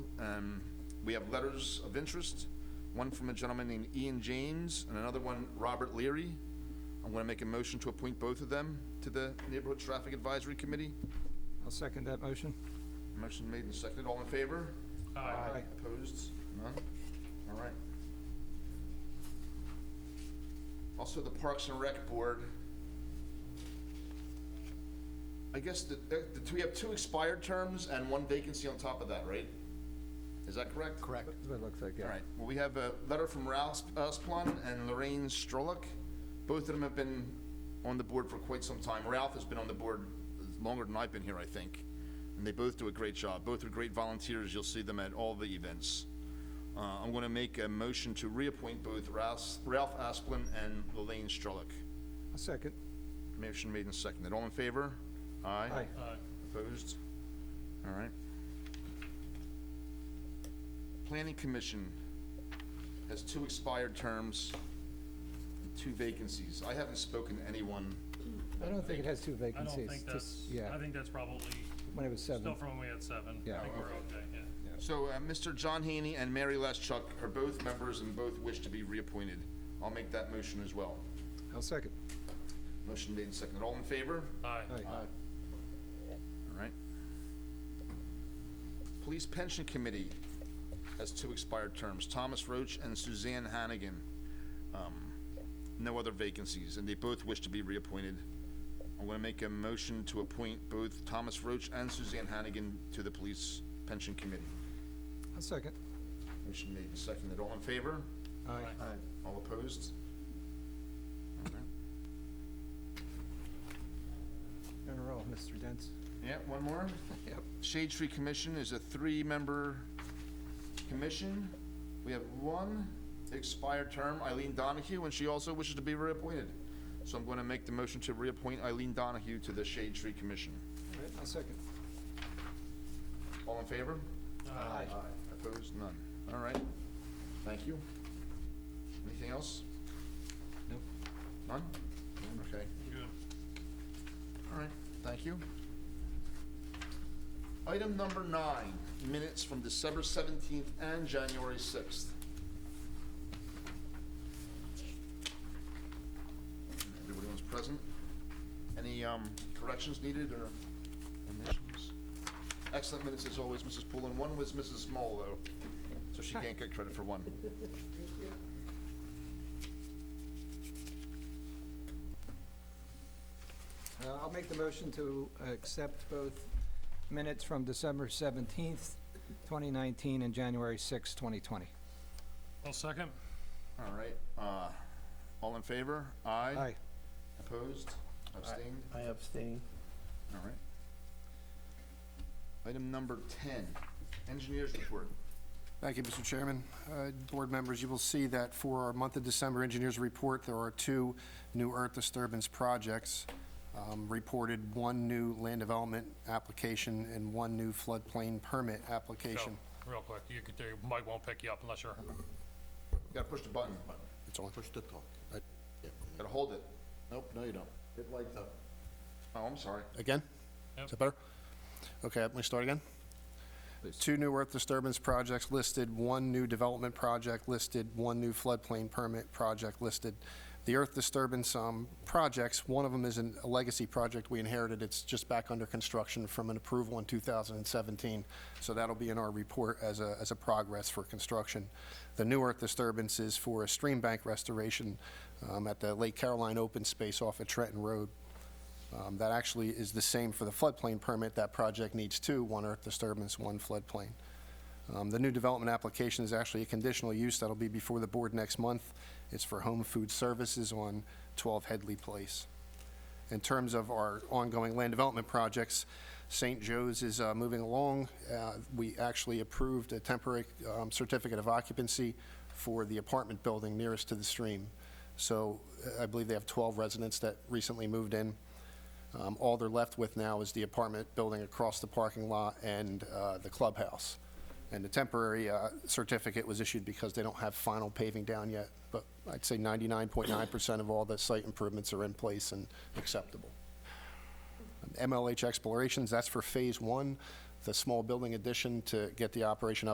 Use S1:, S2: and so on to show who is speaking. S1: Um, We have letters of interest, one from a gentleman named Ian James and another one, Robert Leary. I'm going to make a motion to appoint both of them to the Neighborhood Traffic Advisory Committee.
S2: I'll second that motion.
S1: Motion made and seconded. All in favor?
S2: Aye.
S1: Opposed? None? All right. Also, the Parks and Rec Board. I guess that, that- that we have two expired terms and one vacancy on top of that, right? Is that correct? Correct.
S2: That's what it looks like,
S1: All
S2: yeah.
S1: right, well, we have a letter from Ralph Usplon and Lorraine Strolick. Both of them have been on the board for quite some time. Ralph has been on the board longer than I've been here, I think. And they both do a great job. Both are great volunteers. You'll see them at all the events. Uh, I'm going to make a motion to reappoint both Ralph, Ralph Asplin and Lorraine Strolick.
S2: I'll second.
S1: Motion made and seconded. All in favor? Aye.
S2: Aye.
S3: Uh,
S1: Opposed? All right. Planning Commission has two expired terms, and two vacancies. I haven't spoken to anyone.
S2: I don't think it has two
S3: I don't
S2: vacancies.
S3: think
S2: just-
S3: that's, I
S2: Yeah,
S3: think that's probably
S2: when it was
S3: still
S2: seven.
S3: from when we had seven.
S2: Yeah.
S3: I think we're okay, yeah.
S1: So uh, Mr. John Haney and Mary Leschuk are both members and both wish to be reappointed. I'll make that motion as well.
S2: I'll second.
S1: Motion made and seconded. All in favor?
S3: Aye.
S2: Aye.
S1: All right. Police Pension Committee has two expired terms, Thomas Roach and Suzanne Hannigan. Um, No other vacancies, and they both wish to be reappointed. I'm going to make a motion to appoint both Thomas Roach and Suzanne Hannigan to the Police Pension Committee.
S2: I'll second.
S1: Motion made and seconded. All in favor?
S2: Aye.
S1: All opposed? All right.
S2: In a row, Mr. Dents.
S1: Yeah, one more?
S2: Yep.
S1: Shade Tree Commission is a three-member commission. We have one expired term, Eileen Donahue, and she also wishes to be reappointed. So I'm going to make the motion to reappoint Eileen Donahue to the Shade Tree Commission.
S2: All right, I'll second.
S1: All in favor?
S2: Aye.
S1: Opposed? None. All right. Thank you. Anything else?
S2: Nope.
S1: None? Okay.
S3: Good.
S1: All right, thank you. Item number nine, minutes from December 17th and January 6th. Everybody was present. Any um, corrections needed or omissions? Excellent minutes as always, Mrs. Pullen. One was Mrs. Small, though, so she can't get credit for one.
S2: Uh, I'll make the motion to accept both minutes from December 17th, 2019, and January 6th, 2020.
S3: I'll second.
S1: All right, uh, all in favor? Aye.
S2: Aye.
S1: Opposed? Abstained?
S4: I abstain.
S1: All right. Item number 10, engineers report.
S5: Thank you, Mr. Chairman. Uh, Board members, you will see that for our month of December engineers report, there are two new earth disturbance projects um, reported, one new land development application and one new floodplain permit application.
S3: Go, Real quick, you could, do- Mike won't pick you up unless you're,
S1: Gotta push the button.
S5: It's on.
S4: Push the talk. I- yeah.
S1: Gotta hold it.
S4: Nope, no you don't. It lights up.
S1: Oh, I'm sorry.
S5: Again?
S3: Yep.
S5: Is that better? Okay, let me start again. Two new earth disturbance projects listed, one new development project listed, one new floodplain permit project listed. The earth disturbance um, projects, one of them is an- a legacy project we inherited. It's just back under construction from an approval in 2017. So that'll be in our report as a, as a progress for construction. The new earth disturbance is for a stream bank restoration um, at the Lake Caroline Open Space off of Trenton Road. Um, That actually is the same for the floodplain permit. That project needs two, one earth disturbance, one floodplain. Um, The new development application is actually a conditional use that'll be before the board next month. It's for home food services on 12 Headley Place. In terms of our ongoing land development projects, St. Joe's is uh, moving along. Uh, We actually approved a temporary um, certificate of occupancy for the apartment building nearest to the stream. So uh, I believe they have 12 residents that recently moved in. Um, All they're left with now is the apartment building across the parking lot and uh, the clubhouse. And the temporary uh, certificate was issued because they don't have final paving down yet, but I'd say 99.9% of all the site improvements are in place and acceptable. MLH Explorations, that's for Phase One, the small building addition to get the operation up.